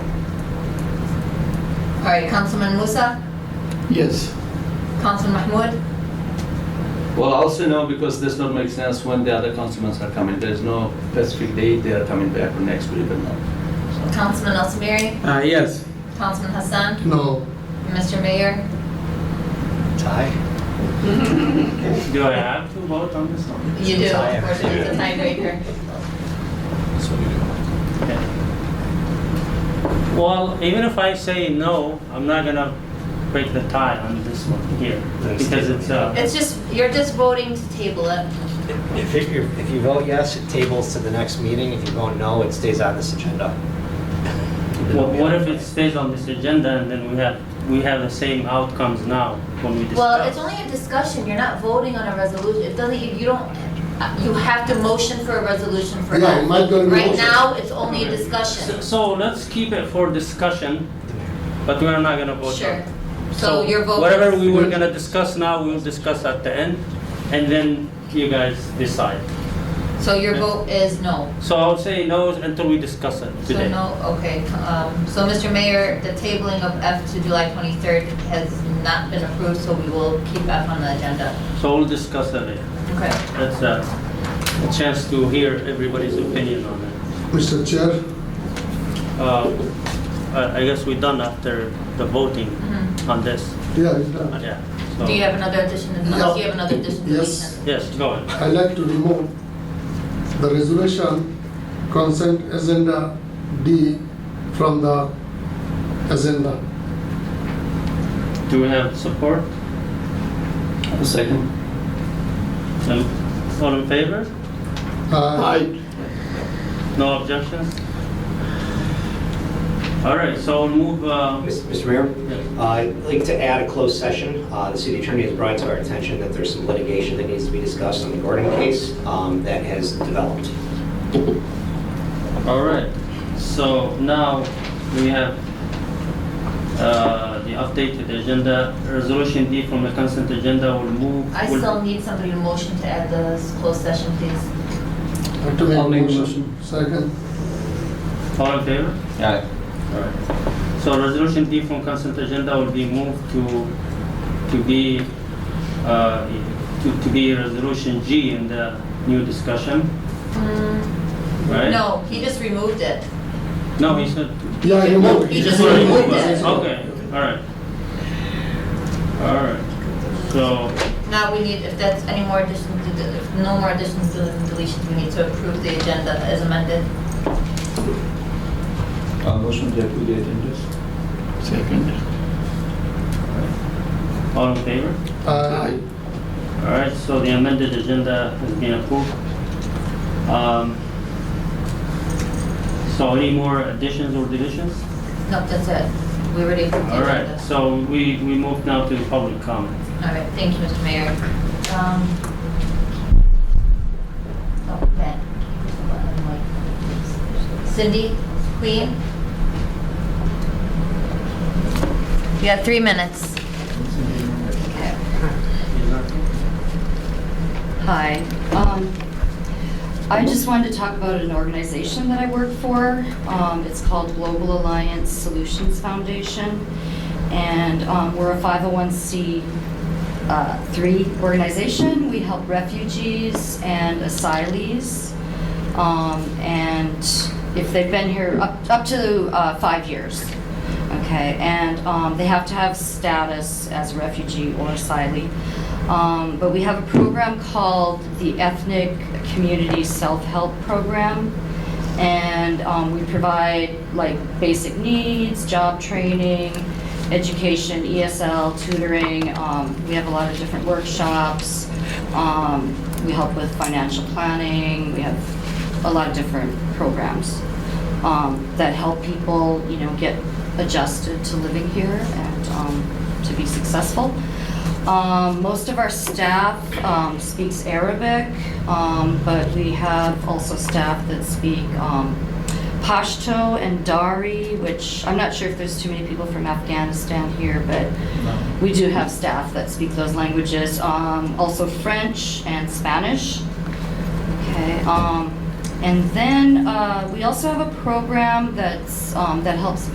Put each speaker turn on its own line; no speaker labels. All right, Councilman Musa,
Yes.
Councilman Mahmoud,
Well, also no, because this not make sense when the other councilmen are coming. There's no specific date they are coming back or next week or not.
Councilman Al Samiri,
Uh, yes.
Councilman Hassan,
No.
Mr. Mayor.
Tie?
So- Do I have to vote on this one?
You do,
Tie.
unfortunately, it's a tiebreaker.
That's what you do.
Well, even if I say no, I'm not gonna break the tie on this one here,
That's
because
the-
it's, uh,
It's just, you're just voting to table it.
If if you, if you vote yes, it tables to the next meeting. If you vote no, it stays on this agenda.
what what if it stays on this agenda and then we have, we have the same outcomes now when we discuss?
Well, it's only a discussion, you're not voting on a resolution, it doesn't, you- you don't, uh, you have to motion for a resolution for that.
Yeah, I'm not gonna
Right
motion.
now, it's only a
So-
discussion,
So let's keep it for discussion, but we're not gonna vote on
sure.
it.
So your vote
Whatever we
is,
were gonna discuss now, we'll discuss at the end, and then you guys decide.
so your vote is no.
So I'll say no until we discuss it
So
today.
no, okay, um, so Mr. Mayor, the tabling of F to July twenty-third has not been approved, so we will keep F on the agenda.
So we'll discuss it later.
Okay.
That's uh, a chance to hear everybody's opinion on it.
Mr. Chair,
Uh, I I guess we're done after the voting
Mhm.
on this.
yeah, it's done.
Yeah. so-
Do you have another addition, unless you have another addition
Yes.
deletion?
Yes, go ahead.
I like to remove the resolution consent agenda D from the agenda.
Do we have support?
A second.
Um, All in favor?
Aye.
No objections? All right, so we'll move, uh,
Mr. Mayor? Uh, I'd like to add a closed session. Uh, The city attorney has brought to our attention that there's some litigation that needs to be discussed on the Gordon case um, that has developed.
all right. So now we have uh, the updated agenda. Resolution D from the consent agenda will move.
I
will-
still need somebody to motion to add this closed session, please.
Have to make
I'll make a
Second.
All in favor?
Yeah.
Alright. So resolution D from consent agenda will be moved to, to be, uh, to, to be resolution G in the new discussion, right?
Mm. No, he just removed it.
No, he said.
Yeah, remove.
He just removed it.
Okay, alright. Alright, so,
Now we need, if that's any more additions, to the- if no more additions to the deletions, we need to approve the agenda as amended.
Uh, motion to approve the agendas.
Second.
all in favor?
Aye.
Alright, so the amended agenda has been approved. Um, So any more additions or deletions?
No, that's it. We already approved the
All
agenda.
right, so we, we move now to the public comment.
All right, thank you, Mr. Mayor. Um, oh, Ben. Cindy, Queen? You have three minutes. Okay.
Hi. Um, I just wanted to talk about an organization that I work for. Um, It's called Global Alliance Solutions Foundation. And um, we're a 501c3 uh, organization. We help refugees and asylees. um, And if they've been here up up to uh, five years. Okay, and um, they have to have status as a refugee or asylee. Um, But we have a program called the Ethnic Community Self-Help Program. And um, we provide like basic needs, job training, education, ESL, tutoring. Um, We have a lot of different workshops. Um, We help with financial planning. We have a lot of different programs um, that help people, you know, get adjusted to living here and um, to be successful. Um, Most of our staff um, speaks Arabic, um, but we have also staff that speak um, Pashto and Dari, which I'm not sure if there's too many people from Afghanistan here, but we do have staff that speak those languages, um, also French and Spanish. Okay, um, and then, uh, we also have a program that's, um, that helps